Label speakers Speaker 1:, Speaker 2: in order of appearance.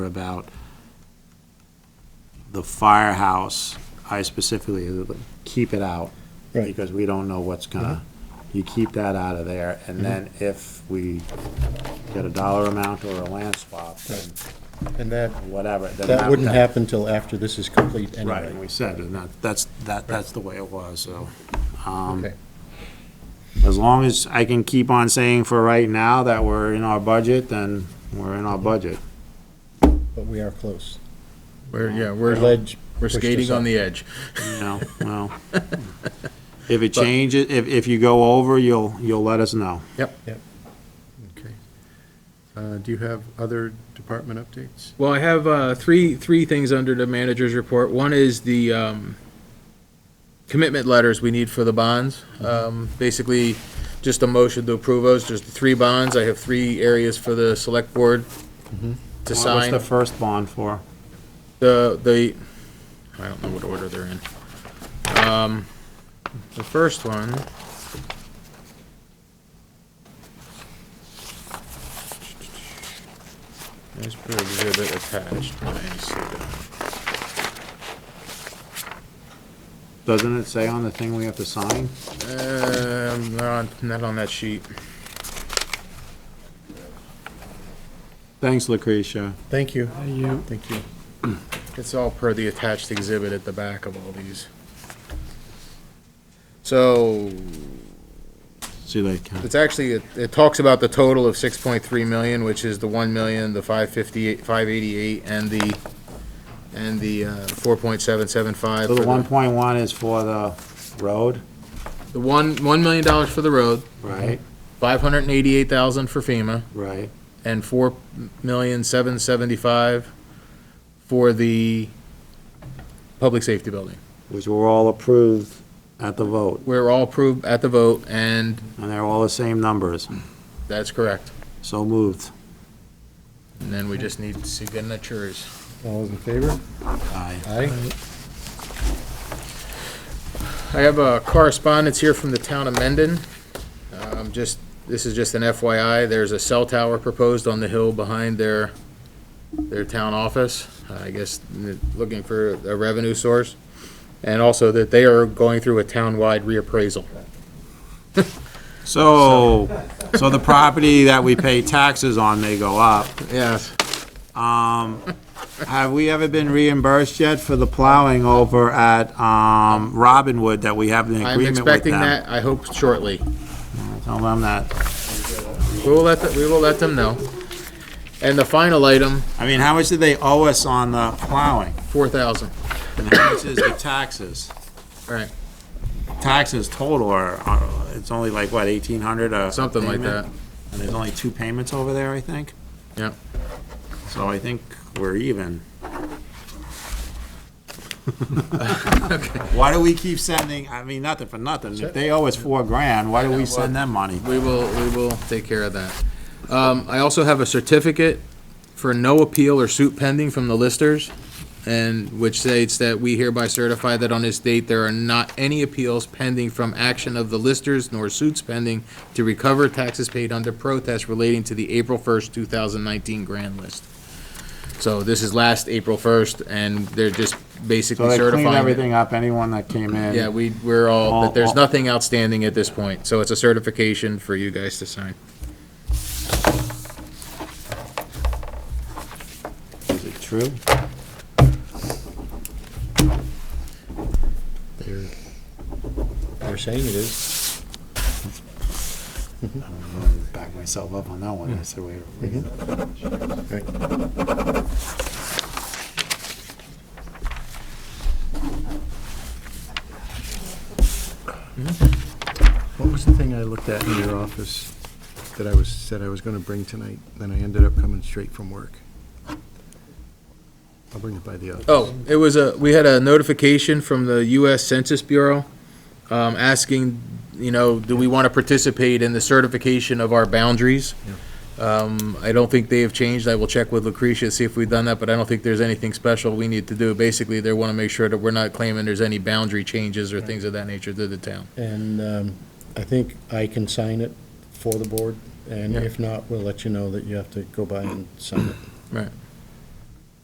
Speaker 1: about the firehouse, I specifically, uh, keep it out.
Speaker 2: Right. Mm-hmm.
Speaker 1: Because we don't know what's gonna, you keep that out of there, and then if we get a dollar amount or a land swap, then
Speaker 2: And that,
Speaker 1: whatever. then
Speaker 2: that wouldn't happen till after this is complete
Speaker 1: Right, and
Speaker 2: anyway.
Speaker 1: we said, and that, that's, that, that's the way it was, so. um,
Speaker 2: Okay.
Speaker 1: As long as I can keep on saying for right now that we're in our budget, then we're in our budget.
Speaker 2: But we are close.
Speaker 3: We're, yeah,
Speaker 2: Oh, The
Speaker 3: we're,
Speaker 2: ledge,
Speaker 3: we're
Speaker 2: pushed us
Speaker 3: skating
Speaker 2: up.
Speaker 3: on the edge.
Speaker 1: No, well, if it changes, if, if you go over, you'll, you'll let us know.
Speaker 3: Okay. Uh, do you have other department updates?
Speaker 4: Well, I have uh, three three things under the manager's report. One is the um, commitment letters we need for the bonds.
Speaker 2: Mm-hmm.
Speaker 4: Um, basically, just a motion to approve those. There's the three bonds. I have three areas for the select board
Speaker 2: Mm-hmm.
Speaker 4: to
Speaker 1: What's
Speaker 4: sign.
Speaker 1: the first bond for?
Speaker 4: The the I don't know what order they're in. Um, the first one. There's per exhibit attached. Let me see that.
Speaker 1: Doesn't it say on the thing we have to sign?
Speaker 4: Um, not on, not on that sheet.
Speaker 1: Thanks, Lucretia.
Speaker 2: Thank you. Thank you.
Speaker 4: It's all per the attached exhibit at the back of all these. So,
Speaker 1: See you later. Ken.
Speaker 4: it's actually, it, it talks about the total of six point three million, which is the one million, the five fifty-eight, five eighty-eight, and the, and the, uh, four point seven seven five.
Speaker 1: So the one point one is for the road,
Speaker 4: The one, one million dollars for the road,
Speaker 1: right?
Speaker 4: five hundred and eighty-eight thousand for FEMA,
Speaker 1: Right.
Speaker 4: and four million, seven seventy-five for the public safety building.
Speaker 1: Which were all approved at the vote,
Speaker 4: We're all approved at the vote, and
Speaker 1: and they're all the same numbers.
Speaker 4: that's correct.
Speaker 1: So moved.
Speaker 4: And then we just need signatures.
Speaker 2: All those in favor?
Speaker 1: Aye.
Speaker 2: Aye.
Speaker 4: I have a correspondence here from the town of Mendon. Um, just, this is just an FYI, there's a cell tower proposed on the hill behind their, their town office. I guess, n- looking for a revenue source. And also that they are going through a town-wide reappraisal.
Speaker 1: So, so the property that we pay taxes on, they go up.
Speaker 4: Yes.
Speaker 1: Um, have we ever been reimbursed yet for the plowing over at, um, Robinwood that we have an
Speaker 4: I'm
Speaker 1: agreement with
Speaker 4: expecting
Speaker 1: them?
Speaker 4: that, I hope shortly.
Speaker 1: Tell them that.
Speaker 4: We will let, the- we will let them know. And the final item,
Speaker 1: I mean, how much do they owe us on the plowing?
Speaker 4: four thousand.
Speaker 1: And how much is the taxes?
Speaker 4: Right.
Speaker 1: Taxes total are, are, it's only like, what, eighteen hundred a?
Speaker 4: Something like
Speaker 1: payment?
Speaker 4: that.
Speaker 1: And there's only two payments over there, I think?
Speaker 4: Yep.
Speaker 1: So I think we're even. Why do we keep sending, I mean, nothing for nothing, if they owe us four grand, why do we send them money?
Speaker 4: We will, we will take care of that. Um, I also have a certificate for no appeal or suit pending from the listers, and which states that we hereby certify that on this date, there are not any appeals pending from action of the listers nor suits pending to recover taxes paid under protest relating to the April first, two thousand nineteen grand list. So this is last April first, and they're just
Speaker 1: So
Speaker 4: basically
Speaker 1: they
Speaker 4: certifying.
Speaker 1: clean
Speaker 4: it.
Speaker 1: everything up, anyone that came in.
Speaker 4: Yeah, we, we're all,
Speaker 1: All-
Speaker 4: that there's
Speaker 1: all-
Speaker 4: nothing outstanding at this point, so it's a certification for you guys to sign.
Speaker 1: Is it true?
Speaker 2: They're, they're saying it is.
Speaker 1: Back myself up on that one, I said, wait. wait.
Speaker 2: Right.
Speaker 5: What was the thing I looked at in your office that I was, said I was gonna bring tonight, then I ended up coming straight from work? I'll bring it by the office.
Speaker 4: Oh, it was a, we had a notification from the US Census Bureau, um, asking, you know, do we want to participate in the certification of our boundaries? Um, I don't think they have changed. I will check with Lucretia, see if we've done that, but I don't think there's anything special we need to do. Basically, they want to make sure that we're not claiming there's any boundary changes or things of that nature to the town.
Speaker 2: And um, I think I can sign it for the board, and
Speaker 4: Yeah.
Speaker 2: if not, we'll let you know that you have to go by and sign it.
Speaker 4: Right.